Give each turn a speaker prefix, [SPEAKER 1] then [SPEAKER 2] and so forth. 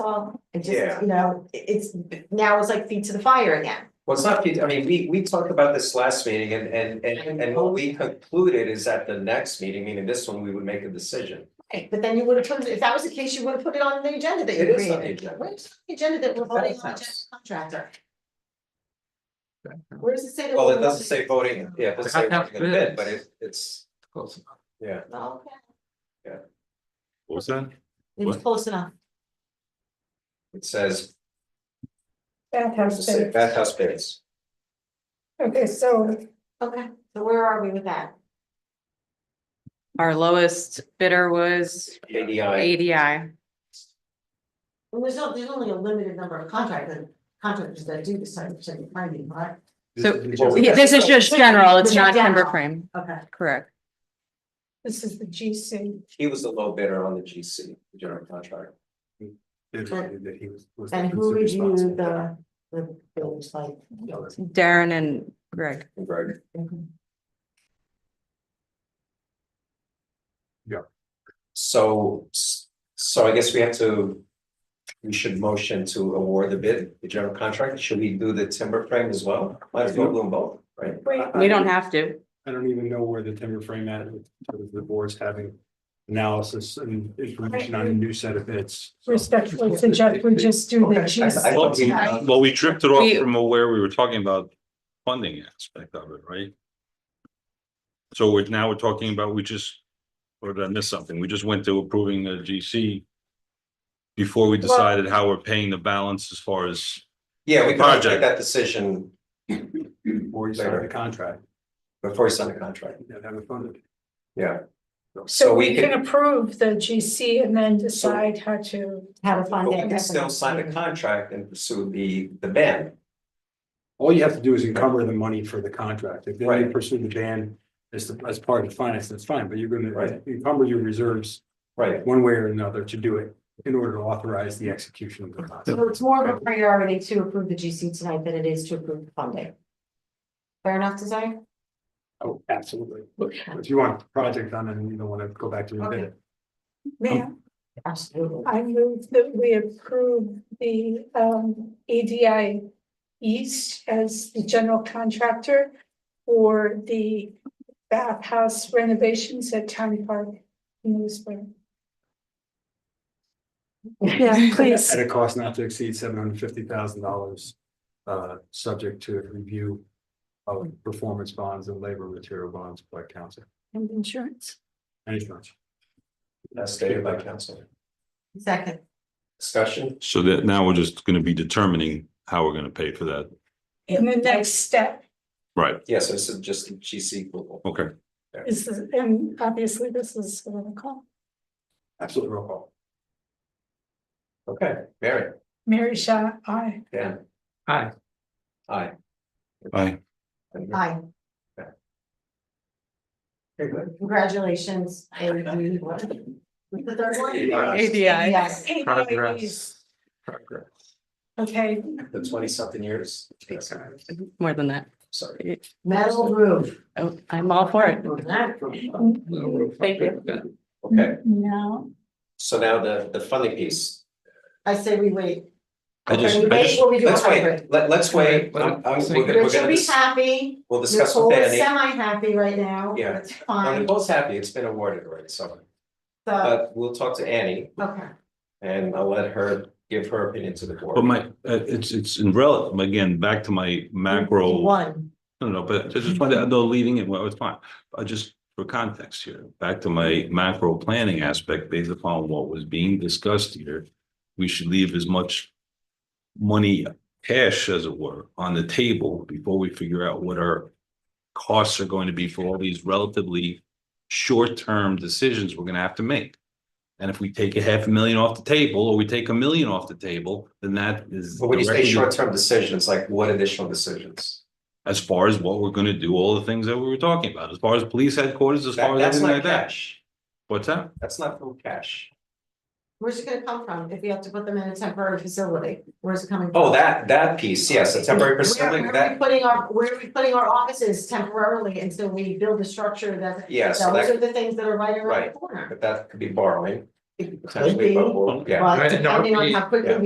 [SPEAKER 1] all, it
[SPEAKER 2] Yeah.
[SPEAKER 1] just, you know, it- it's, now it's like feet to the fire again.
[SPEAKER 2] Well, it's not, I mean, we we talked about this last meeting and and and and what we concluded is at the next meeting, meaning this one, we would make a decision.
[SPEAKER 1] Right, but then you would have put, it if that was the case, you would have put it on the agenda that
[SPEAKER 2] It
[SPEAKER 1] you
[SPEAKER 2] is on the
[SPEAKER 1] created.
[SPEAKER 2] agenda.
[SPEAKER 1] Where's the agenda that we're voting on,
[SPEAKER 2] That's-
[SPEAKER 1] just contractor? Where does it say that?
[SPEAKER 2] Well,
[SPEAKER 1] we're
[SPEAKER 2] it doesn't say voting, yeah, it doesn't say
[SPEAKER 3] They have to
[SPEAKER 2] voting in a
[SPEAKER 3] have
[SPEAKER 2] bid, but
[SPEAKER 3] bids.
[SPEAKER 2] it it's,
[SPEAKER 3] Close enough.
[SPEAKER 2] yeah.
[SPEAKER 1] Oh, Okay,
[SPEAKER 4] What was that?
[SPEAKER 1] it was
[SPEAKER 4] What?
[SPEAKER 1] close enough.
[SPEAKER 2] It says, it
[SPEAKER 5] Bathhouse
[SPEAKER 2] says
[SPEAKER 5] bid.
[SPEAKER 2] bathhouse bids.
[SPEAKER 5] Okay, so
[SPEAKER 1] Okay, so where are we with that?
[SPEAKER 6] Our lowest bidder was
[SPEAKER 2] ADI,
[SPEAKER 6] ADI.
[SPEAKER 1] Well, there's only, there's only a limited number of contractors, contractors that do this type of thing, I mean, right?
[SPEAKER 6] So-
[SPEAKER 4] This is
[SPEAKER 2] Well,
[SPEAKER 4] the-
[SPEAKER 2] we-
[SPEAKER 6] Yeah, This is just general, it's not
[SPEAKER 1] General.
[SPEAKER 6] timber frame,
[SPEAKER 1] Okay.
[SPEAKER 6] correct.
[SPEAKER 5] this is the GC.
[SPEAKER 2] he was the low bidder on the GC, the general contractor.
[SPEAKER 4] that he was- was
[SPEAKER 1] And who reviewed
[SPEAKER 4] responsible.
[SPEAKER 1] the, the bills like?
[SPEAKER 6] Darren and Greg.
[SPEAKER 2] Right.
[SPEAKER 5] Mm-hmm.
[SPEAKER 2] So s- so I guess we have to. We should motion to award the bid, the general contract. Should we do the timber frame as well? Might as well do them both, right?
[SPEAKER 5] Wait.
[SPEAKER 6] We don't have to.
[SPEAKER 4] I don't even know where the timber frame at, because the board's having analysis and information on a new set of bids. so.
[SPEAKER 5] Respectfully suggest we just do the
[SPEAKER 2] Okay, I- I
[SPEAKER 5] GC.
[SPEAKER 2] thought we-
[SPEAKER 1] Right.
[SPEAKER 4] Well,
[SPEAKER 7] Well, we dripped it off
[SPEAKER 6] We-
[SPEAKER 7] from where we were talking about funding aspect of it, right? So we're now we're talking about, we just, or did I miss something? We just went to approving the GC. Before we decided how we're paying the balance as far as,
[SPEAKER 2] Yeah, we can make
[SPEAKER 7] Project.
[SPEAKER 2] that decision
[SPEAKER 4] Before you sign the contract,
[SPEAKER 2] before we sign the contract.
[SPEAKER 4] you gotta have it funded.
[SPEAKER 2] Yeah.
[SPEAKER 5] So we can approve the GC and then decide how to,
[SPEAKER 1] How to
[SPEAKER 2] But
[SPEAKER 1] find
[SPEAKER 2] we
[SPEAKER 1] that.
[SPEAKER 2] can still sign the contract and pursue the the ban.
[SPEAKER 4] All you have to do is encumber the money for the contract. If they
[SPEAKER 2] Right.
[SPEAKER 4] pursue the ban as, the- as part of the finance, that's fine, but you're gonna
[SPEAKER 2] Right.
[SPEAKER 4] encumber your reserves
[SPEAKER 2] Right.
[SPEAKER 4] one way or another to do it in order to authorize the execution of the contract.
[SPEAKER 1] So it's more of a priority to approve the GC tonight than it is to approve the funding. Fair enough, Desiree?
[SPEAKER 4] Oh, absolutely. If you want a project done and you don't want to go back to your bid,
[SPEAKER 5] ma'am,
[SPEAKER 1] Absolutely.
[SPEAKER 5] I move that we approve the um EDI East as the general contractor for the bathhouse renovations at Town Park in Lewisburg.
[SPEAKER 6] Yeah,
[SPEAKER 4] at a cost not to exceed seven hundred fifty thousand dollars. Uh, subject to review of performance bonds and labor material bonds by council.
[SPEAKER 5] And insurance.
[SPEAKER 4] Any insurance.
[SPEAKER 2] As stated by council.
[SPEAKER 1] Second,
[SPEAKER 2] Discussion,
[SPEAKER 7] so that now we're just gonna be determining how we're gonna pay for that.
[SPEAKER 5] And the next step
[SPEAKER 7] Right,
[SPEAKER 2] yes, this is just the GC approval.
[SPEAKER 7] okay.
[SPEAKER 5] is, the- and obviously this is what I call
[SPEAKER 4] Absolutely roll call.
[SPEAKER 2] Okay, Mary,
[SPEAKER 5] Mary Shaw, I.
[SPEAKER 2] Dan,
[SPEAKER 3] Hi,
[SPEAKER 2] aye.
[SPEAKER 7] Aye.
[SPEAKER 1] aye,
[SPEAKER 2] Very good.
[SPEAKER 1] congratulations. And we- what? What's The third one?
[SPEAKER 6] ADI.
[SPEAKER 1] Yes.
[SPEAKER 3] progress. Progress.
[SPEAKER 5] Okay,
[SPEAKER 2] The twenty something years. Yes,
[SPEAKER 6] More than that.
[SPEAKER 2] Sorry.
[SPEAKER 1] Metal roof.
[SPEAKER 6] Oh, I'm all for it.
[SPEAKER 1] Thank you.
[SPEAKER 2] Okay,
[SPEAKER 5] now,
[SPEAKER 2] so now the the funding piece.
[SPEAKER 1] I say we wait.
[SPEAKER 7] I just-
[SPEAKER 1] We
[SPEAKER 7] I
[SPEAKER 1] wait
[SPEAKER 7] just-
[SPEAKER 1] till we do a
[SPEAKER 2] Let's
[SPEAKER 1] hybrid.
[SPEAKER 2] wait, let let's wait. I'm- I'm- we're gonna- we're
[SPEAKER 1] Rich will
[SPEAKER 2] gonna
[SPEAKER 1] be
[SPEAKER 2] dis-
[SPEAKER 1] happy,
[SPEAKER 2] We'll discuss
[SPEAKER 1] Nicole
[SPEAKER 2] with
[SPEAKER 1] is
[SPEAKER 2] Danny.
[SPEAKER 1] semi-happy right now,
[SPEAKER 2] Yeah.
[SPEAKER 1] it's
[SPEAKER 2] Now,
[SPEAKER 1] fine,
[SPEAKER 2] Nicole's happy, it's been awarded already, so
[SPEAKER 1] so,
[SPEAKER 2] but we'll talk to Annie
[SPEAKER 1] okay.
[SPEAKER 2] and I'll let her give her opinion to the board.
[SPEAKER 7] But my, uh, it's, it's in rel, again, back to my macro.
[SPEAKER 1] One.
[SPEAKER 7] No, no, but I just wanted, though leading it, well, it's fine, I just, for context here, back to my macro planning aspect, based upon what was being discussed here. We should leave as much money, cash as it were, on the table before we figure out what our. Costs are going to be for all these relatively short-term decisions we're gonna have to make. And if we take a half a million off the table, or we take a million off the table, then that is.
[SPEAKER 2] But when you say
[SPEAKER 7] directly-
[SPEAKER 2] short-term decisions, like what additional decisions?
[SPEAKER 7] as far as what we're gonna do, all the things that we were talking about, as far as police headquarters, as
[SPEAKER 2] That-
[SPEAKER 7] far as
[SPEAKER 2] That's
[SPEAKER 7] everything
[SPEAKER 2] not
[SPEAKER 7] like that.
[SPEAKER 2] cash,
[SPEAKER 7] What's that?
[SPEAKER 2] that's not full cash.
[SPEAKER 1] Where's it gonna come from if you have to put them in a temporary facility? Where's it coming from?
[SPEAKER 2] Oh, that, that piece, yes, a temporary
[SPEAKER 1] Where
[SPEAKER 2] facility,
[SPEAKER 1] where are we
[SPEAKER 2] that,
[SPEAKER 1] putting our, where are we putting our offices temporarily until we build a structure that,
[SPEAKER 2] yes,
[SPEAKER 1] those
[SPEAKER 2] that,
[SPEAKER 1] are the things that are right around the
[SPEAKER 2] Right.
[SPEAKER 1] corner.
[SPEAKER 2] but that could be borrowing.
[SPEAKER 1] It could
[SPEAKER 2] potentially,
[SPEAKER 1] be,
[SPEAKER 2] but we'll, yeah.
[SPEAKER 1] but
[SPEAKER 3] Right, no,
[SPEAKER 1] depending on
[SPEAKER 3] we-
[SPEAKER 1] how quickly
[SPEAKER 2] yeah.